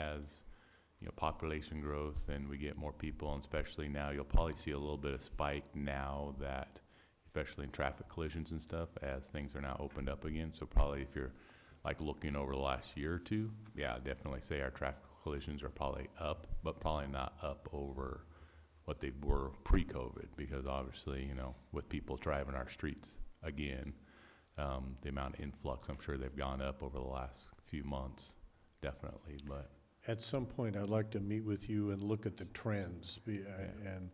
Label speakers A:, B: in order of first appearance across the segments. A: as, you know, population growth and we get more people, and especially now, you'll probably see a little bit of spike now that, especially in traffic collisions and stuff, as things are now opened up again. So probably if you're like looking over the last year or two, yeah, I'd definitely say our traffic collisions are probably up, but probably not up over what they were pre-COVID, because obviously, you know, with people driving our streets again, um, the amount of influx, I'm sure they've gone up over the last few months, definitely, but
B: At some point, I'd like to meet with you and look at the trends, be- uh, and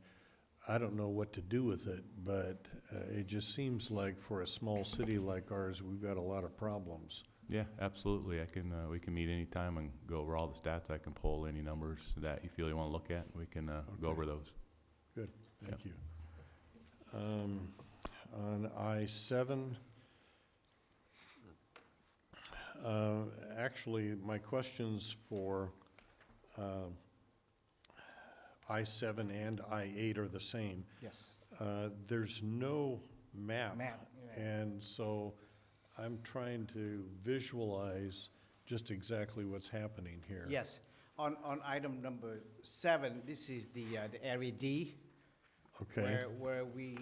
B: I don't know what to do with it, but uh, it just seems like for a small city like ours, we've got a lot of problems.
A: yeah, absolutely. I can, uh, we can meet anytime and go over all the stats. I can pull any numbers that you feel you want to look at. and We can, uh, go
B: Okay.
A: over those.
B: Good, thank you. Um, On I-7, uh, actually, my questions for um, I-7 and I-8 are the same.
C: Yes.
B: Uh, There's no map.
C: Map, yeah.
B: And so I'm trying to visualize just exactly what's happening here.
C: Yes. On, on item number seven, this is the, uh, the area D,
B: Okay,
C: where, where we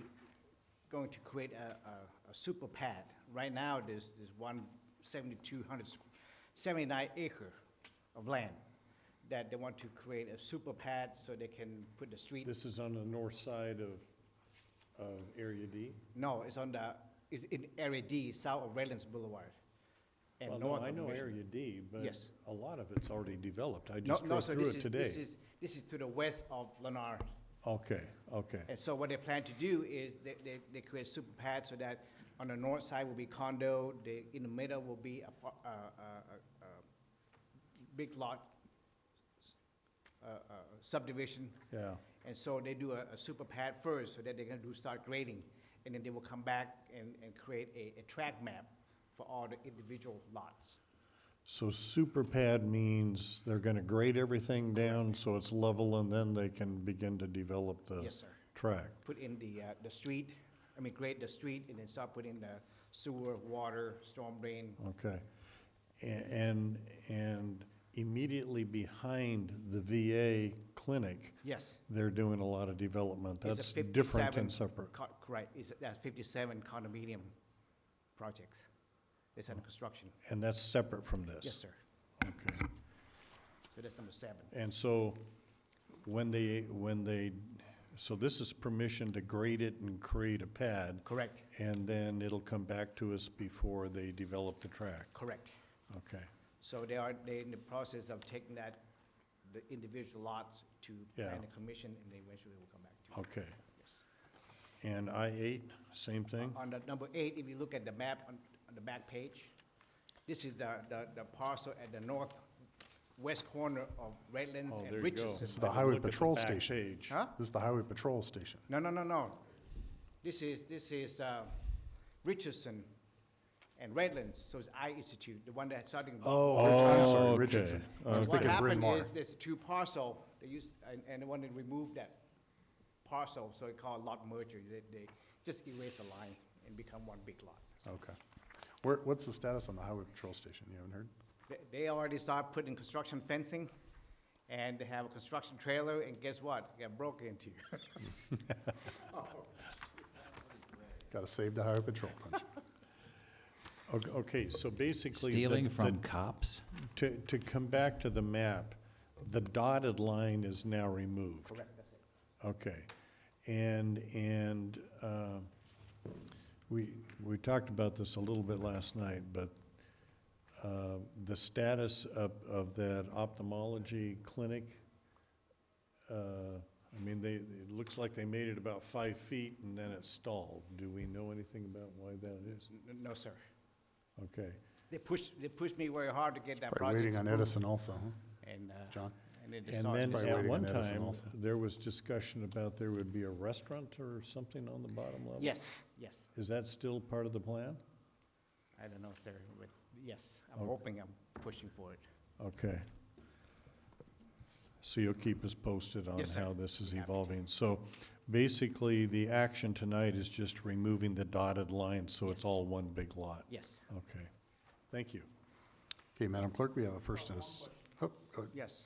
C: going to create a, a, a super pad. Right now, there's, there's one seventy-two hundred, seventy-nine acre of land that they want to create a super pad so they can put the street.
B: this is on the north side of, of Area D?
C: No, it's on the, it's in area D, south of Redlands Boulevard. and
B: Well,
C: north
B: no, I
C: of
B: know
C: Mission.
B: Area D, but
C: Yes.
B: a lot of it's already developed. I
C: No,
B: just
C: no,
B: drove
C: so
B: through
C: this
B: it
C: is-
B: today.
C: This is, this is to the west of Lennar.
B: Okay, okay,
C: And so what they plan to do is they, they, they create super pads so that on the north side will be condo, the, in the middle will be a, par- uh, uh, uh, uh, big lot uh, uh, subdivision.
B: yeah,
C: And so they do a, a super pad first so that they can do start grading. And then they will come back and, and create a, a track map for all the individual lots.
B: so super pad means they're gonna grade everything down so it's level and then they can begin to develop the
C: Yes, sir.
B: track.
C: Put in the, uh, the street, I mean, grade the street and then start putting the sewer, water, storm drain,
B: Okay. A- And, and immediately behind the VA clinic,
C: yes.
B: they're doing a lot of development.
C: It's a
B: That's different
C: 57
B: and separate.
C: co- Correct, it's, that's fifty-seven condominium projects, it's under construction,
B: And that's separate from this?
C: yes, sir,
B: Okay.
C: so that's number seven,
B: And so, when they, when they, so this is permission to grade it and create a pad,
C: correct,
B: and then it'll come back to us before they develop the track?
C: correct.
B: Okay,
C: So they are, they're in the process of taking that, the individual lots to
B: Yeah.
C: plan the commission, and they eventually will come back to you.
B: okay.
C: Yes.
B: And I eight, same thing?
C: On the number eight, if you look at the map on, on the back page, this is the, the, the parcel at the northwest corner of Redlands
B: Oh, there
C: and
B: you go.
C: Richardson.
D: This is the
B: I didn't
D: highway
B: look at the
D: patrol
B: back
D: station.
B: page.
C: Huh?
D: This is the highway patrol station.
C: No, no, no, no. This is, this is uh, Richardson and Redlands, so it's I Institute, the one that's starting.
D: I'm
B: Oh,
D: sorry,
B: okay.
D: Richardson. I was
C: What
D: thinking of
C: happened
D: Bryn Mawr.
C: is, there's two parcel, they used, and, and they wanted to remove that parcel, so it called lot merger. They, they just erase the line and become one big lot. So
D: Okay. Where, what's the status on the highway patrol station? You haven't heard?
C: They, they already started putting construction fencing, and they have a construction trailer, and guess what? It Got broke into.
D: Got to save the highway patrol, don't you?
B: Ok- Okay, so basically. the-
E: Stealing
B: the-
E: from cops?
B: To, to come back to the map, the dotted line is now removed.
C: Correct, that's it.
B: Okay. And, and uh, we, we talked about this a little bit last night, but uh, the status of, of that ophthalmology clinic, uh, I mean, they, it looks like they made it about five feet and then it stalled. Do we know anything about why that is?
C: N- n- No, sir.
B: Okay.
C: They pushed, they pushed me very hard to get that
D: Probably
C: project
D: waiting on
C: approved.
D: Edison also, huh?
C: And, uh,
D: John?
C: And then
B: And then
D: Probably
B: at
D: waiting
B: one
D: on Edison
B: time,
D: also.
B: there was discussion about there would be a restaurant or something on the bottom level?
C: Yes, yes.
B: Is that still part of the plan?
C: I don't know, sir, but yes, I'm hoping I'm pushing for it.
B: Okay. So you'll keep us posted on
C: Yes, sir.
B: how this is
C: Happy to.
B: evolving. So basically, the action tonight is just removing the dotted line, so it's
C: Yes.
B: all one big lot?
C: Yes,
B: Okay. Thank you.
D: Okay, Madam Clerk, we have a first and a s- oh, go ahead.
C: yes.